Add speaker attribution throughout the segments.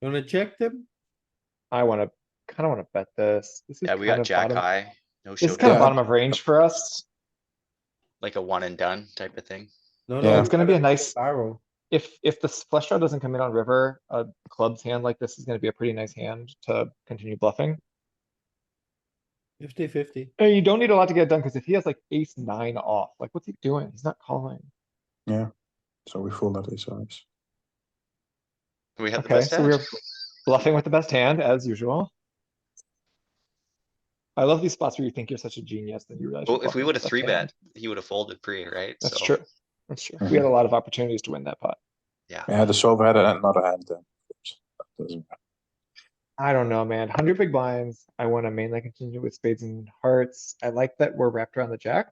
Speaker 1: You wanna check them?
Speaker 2: I wanna, kinda wanna bet this. This is
Speaker 3: Yeah, we
Speaker 2: kind
Speaker 3: got
Speaker 2: of
Speaker 3: jack
Speaker 2: bottom-
Speaker 3: high, no
Speaker 2: This is kinda
Speaker 1: showdown.
Speaker 2: bottom
Speaker 3: showdown,
Speaker 2: of range for us.
Speaker 3: like a one and done type of thing.
Speaker 1: No,
Speaker 2: Yeah,
Speaker 1: no,
Speaker 2: it's gonna be a
Speaker 1: gotta go
Speaker 2: nice-
Speaker 1: Barrel.
Speaker 2: If, if the s- flush draw doesn't come in on river, a club's hand like this is gonna be a pretty nice hand to continue bluffing.
Speaker 1: Fifty fifty.
Speaker 2: And you don't need a lot to get it done, cause if he has like ace nine off, like what's he doing? He's not calling.
Speaker 4: So we fold out ace size.
Speaker 3: We had the
Speaker 2: Okay,
Speaker 3: best
Speaker 2: so we're
Speaker 3: hand.
Speaker 2: bluffing with the best hand as usual. I love these spots where you think you're such a genius that you realize. you're
Speaker 3: Well, if we
Speaker 2: bluffing
Speaker 3: would
Speaker 2: with
Speaker 3: have
Speaker 2: the best
Speaker 3: three
Speaker 2: hand.
Speaker 3: bet, he would have folded pre, right?
Speaker 2: That's
Speaker 3: So,
Speaker 2: true. That's true. We had a lot of opportunities to win that pot.
Speaker 3: Yeah.
Speaker 4: Yeah, the solver had another hand then. That doesn't matter.
Speaker 2: I don't know, man. Hundred big blinds. I want to mainly continue with spades and hearts. I like that we're wrapped around the jack.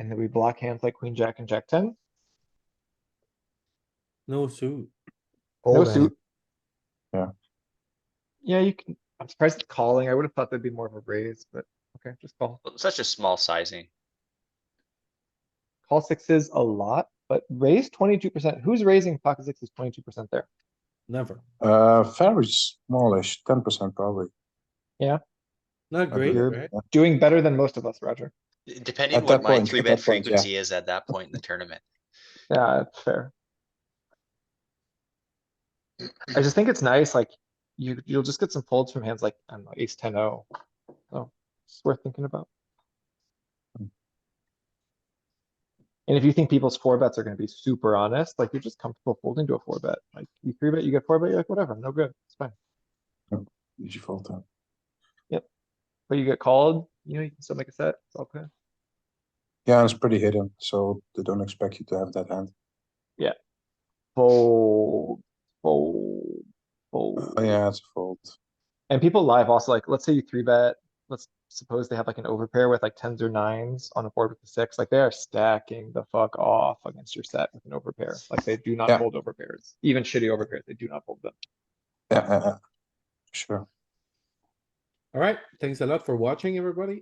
Speaker 2: And that we block hands like queen, jack and jack ten.
Speaker 1: No suit.
Speaker 2: No
Speaker 5: Hold it.
Speaker 2: suit.
Speaker 4: Yeah.
Speaker 2: Yeah, you can. I'm surprised it's calling. I would have thought that'd be more of a raise, but okay, just call.
Speaker 3: well, such a small sizing.
Speaker 2: Call sixes a lot, but raise twenty-two percent. Who's raising pocket sixes twenty-two percent there?
Speaker 1: Never.
Speaker 4: Uh, very smallish, ten percent probably.
Speaker 1: Not
Speaker 4: I
Speaker 1: great,
Speaker 4: believe,
Speaker 1: right?
Speaker 4: yeah.
Speaker 2: Doing better than most of us, Roger.
Speaker 3: D- Depending
Speaker 4: At
Speaker 3: what
Speaker 4: that
Speaker 3: my
Speaker 4: point,
Speaker 3: three
Speaker 4: at
Speaker 3: bet
Speaker 4: that point, yeah.
Speaker 3: frequency is at that point in the tournament.
Speaker 2: Yeah, it's fair. I just think it's nice, like, you, you'll just get some folds from hands like, I don't know, ace ten O. So, it's worth thinking about. And if you think people's four bets are gonna be super honest, like, you're just comfortable folding to a four bet, like, you three bet, you get four bet, you're like, whatever, no good, it's fine.
Speaker 4: Did you fold out?
Speaker 2: But you get called, you know, you can still make a set, it's all good.
Speaker 4: Yeah, it's pretty hidden, so they don't expect you to have that hand.
Speaker 2: Fold, fold, fold.
Speaker 4: Oh, yeah, it's a fold.
Speaker 2: And people live also like, let's say you three bet, let's suppose they have like an overpair with like tens or nines on a board with a six, like they are stacking the fuck off against your set with an overpair. Like they do not
Speaker 4: Yeah.
Speaker 2: fold overpairs, even shitty overpairs, they do not fold them.
Speaker 4: Yeah, yeah, yeah. sure.
Speaker 1: Alright, thanks a lot for watching, everybody.